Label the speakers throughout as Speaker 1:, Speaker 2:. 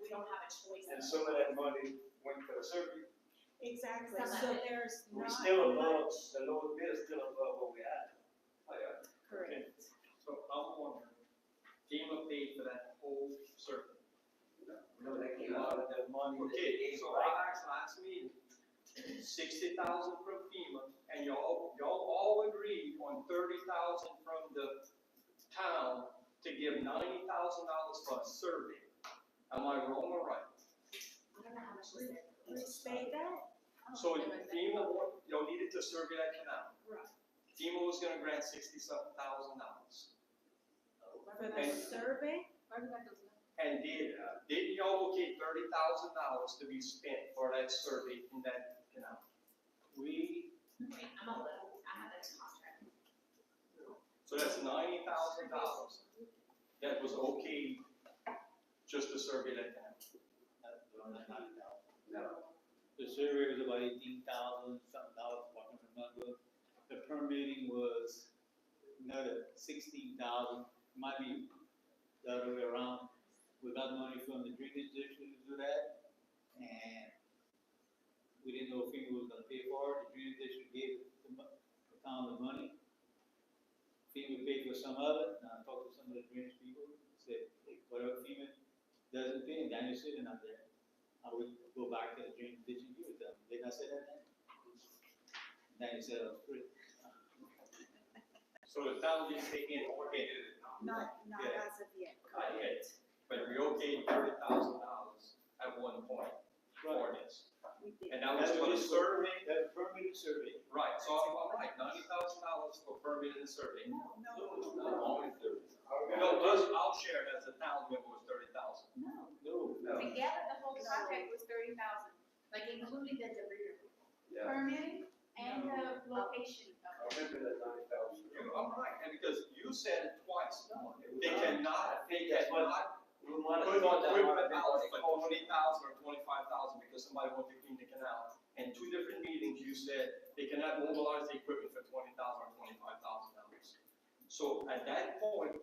Speaker 1: we don't have a choice.
Speaker 2: And some of that money went to the circuit.
Speaker 3: Exactly,
Speaker 1: Some
Speaker 3: so
Speaker 1: of it.
Speaker 3: there's
Speaker 4: We're
Speaker 3: not
Speaker 4: still above,
Speaker 3: much,
Speaker 4: the lower bid is still above what we had.
Speaker 5: Oh,
Speaker 2: Yeah.
Speaker 3: correct,
Speaker 5: So I'm wondering, FEMA paid for that whole circuit.
Speaker 4: Remember that came out of the money that they
Speaker 5: Okay,
Speaker 4: gave,
Speaker 5: so
Speaker 4: right?
Speaker 5: I asked last meeting, sixty thousand from FEMA, and y'all, y'all all agreed on thirty thousand from the town to give ninety thousand dollars for a survey. Am I wrong or right?
Speaker 1: I don't know how much Oh, was it.
Speaker 3: restate that,
Speaker 1: I don't
Speaker 5: So
Speaker 1: know what that-
Speaker 5: FEMA, wa- y'all needed to survey that canal.
Speaker 1: Right.
Speaker 5: FEMA was gonna grant sixty-seven thousand dollars.
Speaker 3: for the
Speaker 5: Thank you.
Speaker 3: survey,
Speaker 5: And did, did y'all allocate thirty thousand dollars to be spent for that survey in that canal?
Speaker 4: We,
Speaker 1: Wait, I'm a little, I have that contract.
Speaker 5: So that's ninety thousand dollars that was okay just to survey that canal.
Speaker 4: no,
Speaker 6: The survey was about eighteen thousand something dollars, if I can remember. The permitting was another sixteen thousand, might be the other way around. We got money from the drainage district to do that, and we didn't know if FEMA was gonna pay for it, the drainage district gave the mo- the town the money. FEMA paid for some of it, and I talked to some of the drainage people, said, "Hey, whatever FEMA doesn't pay, and Daniel's sitting out there. I would go back to the dream, did you with them? Did I say that then? Then he said, "Oh, great."
Speaker 5: So the town didn't take in or did it?
Speaker 3: not, not
Speaker 5: Yeah.
Speaker 3: as of yet.
Speaker 5: Not yet, but we okayed thirty thousand dollars at one point for this.
Speaker 3: We did.
Speaker 5: And that was for the survey,
Speaker 6: That permitted survey.
Speaker 5: right, so I'm all right, ninety thousand dollars for permitting the survey.
Speaker 3: No, no,
Speaker 5: No, only thirty.
Speaker 2: I
Speaker 5: No,
Speaker 2: remember-
Speaker 5: those, I'll share it as a town member was thirty thousand.
Speaker 3: no,
Speaker 6: No.
Speaker 2: No.
Speaker 1: Together, the whole
Speaker 3: No.
Speaker 1: contract was thirty thousand, like including the debris removal.
Speaker 2: Yeah.
Speaker 1: Permitting and the location
Speaker 2: I
Speaker 1: of it.
Speaker 2: remember that ninety thousand.
Speaker 5: You, I'm right, and because you said it twice, no, they
Speaker 4: not.
Speaker 5: cannot, they cannot
Speaker 4: we might
Speaker 5: put
Speaker 4: have thought that might have
Speaker 5: equipment
Speaker 4: been
Speaker 5: out
Speaker 4: what it
Speaker 5: for
Speaker 4: cost.
Speaker 5: twenty thousand or twenty-five thousand because somebody wanted to clean the canal. In two different meetings, you said they cannot mobilize the equipment for twenty thousand or twenty-five thousand dollars. So at that point,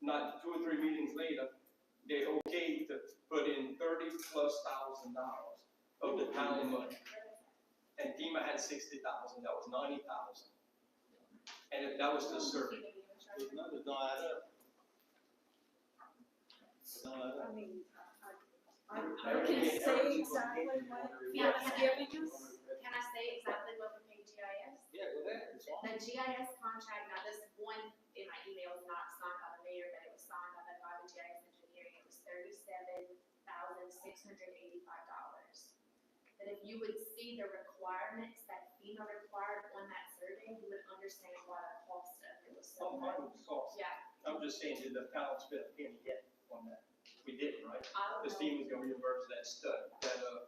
Speaker 5: not two or three meetings later, they okayed to put in thirty plus thousand dollars of the town money. And FEMA had sixty thousand, that was ninety thousand. And if that was the survey.
Speaker 6: Those numbers don't add up. Don't add up.
Speaker 3: I mean, uh, I, I, I
Speaker 4: Everything-
Speaker 3: can say
Speaker 4: everything was
Speaker 3: exactly
Speaker 4: getting
Speaker 3: what
Speaker 4: ordered.
Speaker 1: Yeah,
Speaker 3: it's
Speaker 1: but-
Speaker 3: giving us.
Speaker 1: Can I say exactly what we paid GIS?
Speaker 6: Yeah, go ahead, it's on.
Speaker 1: The GIS contract, now this one in my email is not signed by the mayor, but it was signed by the Department of GIS Engineering, it was thirty-seven thousand six hundred eighty-five dollars. But if you would see the requirements that FEMA required on that survey, you would understand why the cost of it was so
Speaker 5: Oh, my
Speaker 1: much.
Speaker 5: God.
Speaker 1: Yeah,
Speaker 5: I'm just saying, did the town spend a penny yet on that? We didn't, right?
Speaker 1: I
Speaker 5: The
Speaker 1: don't know.
Speaker 5: team was gonna reimburse that stud, that, uh,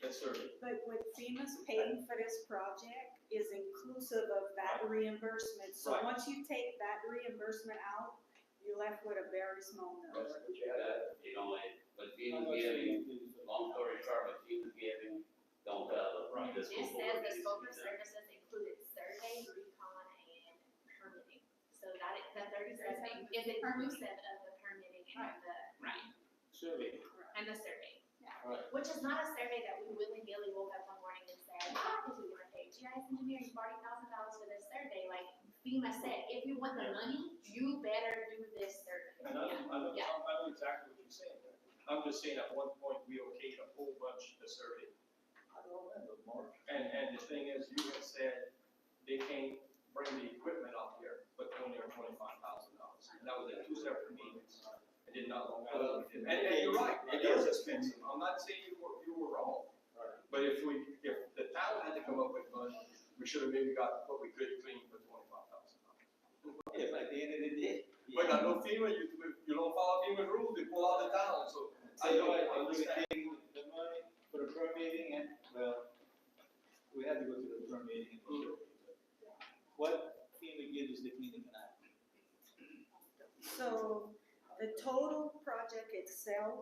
Speaker 5: that survey.
Speaker 3: But what FEMA's paying for this project is inclusive of that reimbursement. So
Speaker 5: Right.
Speaker 3: once you take that reimbursement out, you're left with a very small number.
Speaker 2: That's what you had.
Speaker 7: that, you know, it, but
Speaker 6: How much
Speaker 7: FEMA
Speaker 6: do you
Speaker 7: giving,
Speaker 6: do for-
Speaker 7: long story short, but FEMA giving, don't cover.
Speaker 5: Right.
Speaker 7: The
Speaker 1: It
Speaker 7: school
Speaker 1: says
Speaker 7: board
Speaker 1: the
Speaker 7: needs to
Speaker 1: scope
Speaker 7: be
Speaker 1: of
Speaker 7: done.
Speaker 1: services included survey, recon, and permitting. So that is, the thirty-seven is inclusive of the permitting and the, right,
Speaker 6: Survey.
Speaker 1: and the survey.
Speaker 6: Right.
Speaker 1: Which is not a survey that we willy-nilly woke up one morning and said, ah, this is gonna pay GIS engineering forty thousand dollars for this survey. Like FEMA said, if you want the money, you better do this survey.
Speaker 5: And I know, I know, I
Speaker 1: Yeah.
Speaker 5: know exactly what you're saying. I'm just saying at one point, we okayed a whole bunch of the survey.
Speaker 6: I don't remember, Mark.
Speaker 5: And, and the thing is, you had said they can't bring the equipment up here, but they only are twenty-five thousand dollars. And that was at two separate meetings. It did not long
Speaker 6: Uh,
Speaker 5: out. And, and you're right, it is expensive. I'm not saying you were, you were wrong. But if we, if the town had to come up with money, we should have maybe got what we could clean for twenty-five thousand dollars.
Speaker 6: If at the end of the day.
Speaker 5: But I know FEMA, you, you don't follow FEMA rules, they pull out the town, so.
Speaker 6: So you are, you were taking the money for the permitting and, well, we had to go through the permitting and the survey. What FEMA gives us the cleaning and I.
Speaker 3: So the total project itself